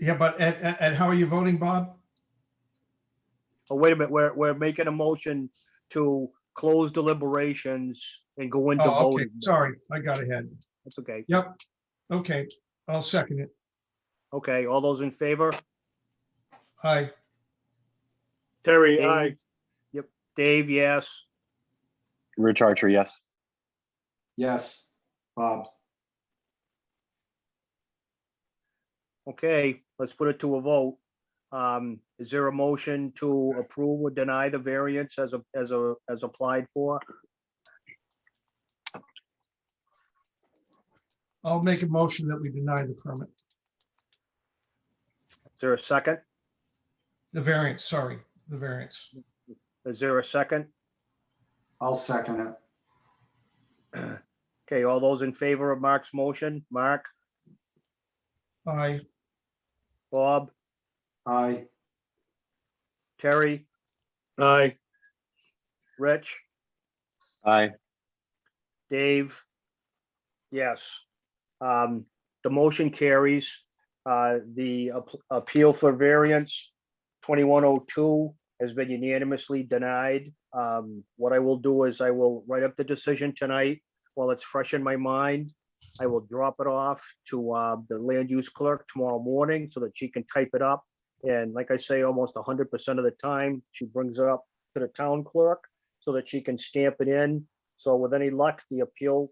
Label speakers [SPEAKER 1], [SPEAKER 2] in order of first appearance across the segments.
[SPEAKER 1] Yeah, but, and, and- and how are you voting, Bob?
[SPEAKER 2] Oh, wait a minute, we're, we're making a motion to close deliberations and go into
[SPEAKER 1] Oh, okay,
[SPEAKER 2] voting.
[SPEAKER 1] sorry, I got ahead.
[SPEAKER 2] That's okay.
[SPEAKER 1] Okay, I'll second it.
[SPEAKER 2] Okay, all those in favor?
[SPEAKER 1] Aye,
[SPEAKER 3] Terry,
[SPEAKER 2] Dave?
[SPEAKER 3] aye.
[SPEAKER 2] Dave, yes.
[SPEAKER 4] Rich Archer, yes.
[SPEAKER 5] Yes, Bob.
[SPEAKER 2] Okay, let's put it to a vote. Um, is there a motion to approve or deny the variance as a, as a, as applied for?
[SPEAKER 1] I'll make a motion that we deny the permit,
[SPEAKER 2] Is there a second?
[SPEAKER 1] the variance, sorry, the variance.
[SPEAKER 2] Is there a second?
[SPEAKER 5] I'll second it.
[SPEAKER 2] Okay, all those in favor of Mark's motion? Mark,
[SPEAKER 1] Aye,
[SPEAKER 2] Bob,
[SPEAKER 5] Aye.
[SPEAKER 2] Terry,
[SPEAKER 3] Aye.
[SPEAKER 2] Rich,
[SPEAKER 4] Aye.
[SPEAKER 2] Dave? Yes. Um, the motion carries. Uh, the ap- appeal for variance twenty-one oh two has been unanimously denied. Um, what I will do is I will write up the decision tonight while it's fresh in my mind. I will drop it off to, uh, the land use clerk tomorrow morning so that she can type it up. And like I say, almost hundred percent of the time, she brings it up to the town clerk so that she can stamp it in. So with any luck, the appeal,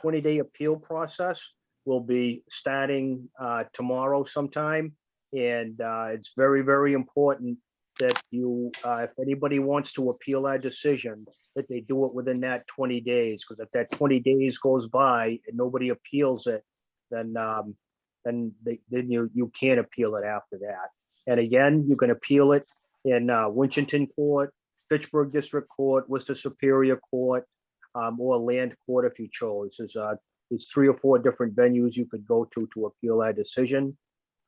[SPEAKER 2] twenty day appeal process will be starting uh, tomorrow sometime. And uh, it's very, very important that you, uh, if anybody wants to appeal our decision, that they do it within that twenty days. Because if that twenty days goes by and nobody appeals it, then um, then they, then you you can't appeal it after that. And again, you can appeal it in uh, Winchton Court, Fitchburg District Court, Worcester Superior Court, um, or Land Court if you chose. There's, uh, there's three or four different venues you could go to to appeal that decision.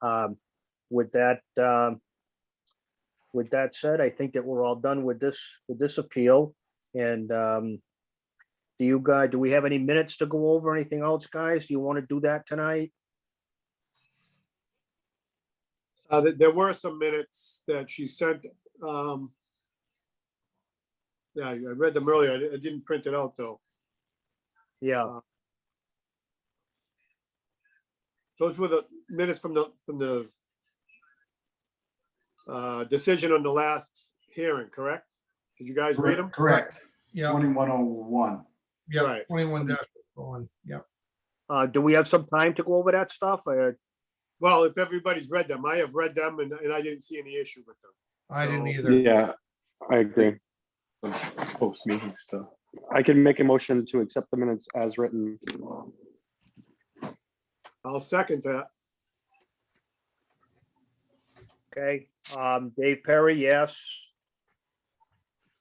[SPEAKER 2] Um, with that, um, with that said, I think that we're all done with this, with this appeal. And, um, do you guys, do we have any minutes to go over? Anything else, guys? Do you want to do that tonight?
[SPEAKER 3] Uh, there, there were some minutes that she sent, um. Yeah, I I read them earlier. I di- I didn't print it out, though.
[SPEAKER 2] Yeah,
[SPEAKER 3] Those were the minutes from the, from the uh, decision on the last hearing, correct? Did you guys read them?
[SPEAKER 5] Correct.
[SPEAKER 1] yeah,
[SPEAKER 5] Twenty-one oh one.
[SPEAKER 1] yeah,
[SPEAKER 3] Right.
[SPEAKER 1] twenty-one dash one, yeah.
[SPEAKER 2] uh, do we have some time to go over that stuff? Uh, Or,
[SPEAKER 3] Well, if everybody's read them, I have read them and, and I didn't see any issue with them.
[SPEAKER 1] I didn't
[SPEAKER 3] So-
[SPEAKER 1] either.
[SPEAKER 4] Yeah, I agree. Post meeting stuff. I can make a motion to accept the minutes as written.
[SPEAKER 3] I'll second that.
[SPEAKER 2] okay, um, Dave Perry, yes.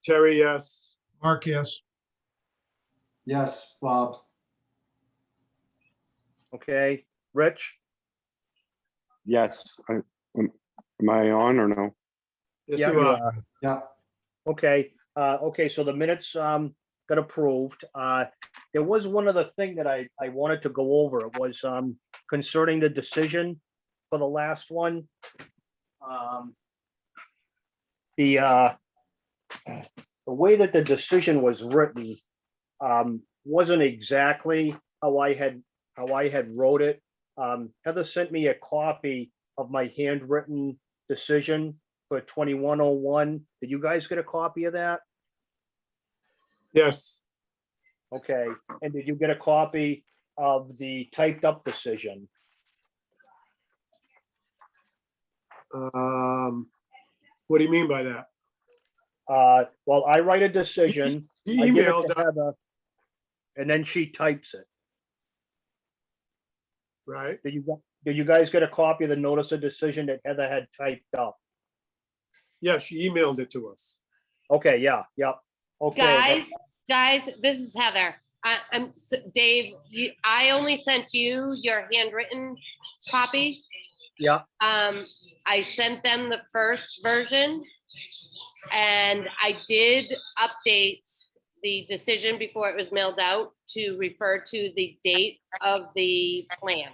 [SPEAKER 3] Terry, yes.
[SPEAKER 1] Mark, yes.
[SPEAKER 5] Yes, Bob.
[SPEAKER 2] Okay, Rich?
[SPEAKER 4] Yes, I, am am I on or no?
[SPEAKER 3] Yes,
[SPEAKER 2] Yeah,
[SPEAKER 3] you
[SPEAKER 2] you
[SPEAKER 3] are.
[SPEAKER 5] Yeah,
[SPEAKER 2] Okay, uh, okay, so the minutes, um, got approved. Uh, there was one other thing that I, I wanted to go over. It was, um, concerning the decision for the last one. Um, The, uh, the way that the decision was written, um, wasn't exactly how I had, how I had wrote it. Um, Heather sent me a copy of my handwritten decision for twenty-one oh one. Did you guys get a copy of that?
[SPEAKER 3] Yes,
[SPEAKER 2] Okay, and did you get a copy of the typed up decision?
[SPEAKER 3] um, what do you mean by that?
[SPEAKER 2] Uh, well, I write a decision.
[SPEAKER 3] He
[SPEAKER 2] I give it
[SPEAKER 3] Emailed,
[SPEAKER 2] to
[SPEAKER 3] that,
[SPEAKER 2] Heather, And then she types it.
[SPEAKER 3] right?
[SPEAKER 2] Did you, gu- did you guys get a copy of the notice of decision that Heather had typed up?
[SPEAKER 3] Yeah, she emailed it to us.
[SPEAKER 2] Okay, yeah, yep. Okay. that-
[SPEAKER 6] Guys, guys, this is Heather. I, I'm, s- Dave, you, I only sent you your handwritten copy.
[SPEAKER 2] Yeah.
[SPEAKER 6] Um, I sent them the first version. And I did update the decision before it was mailed out to refer to the date of the plan.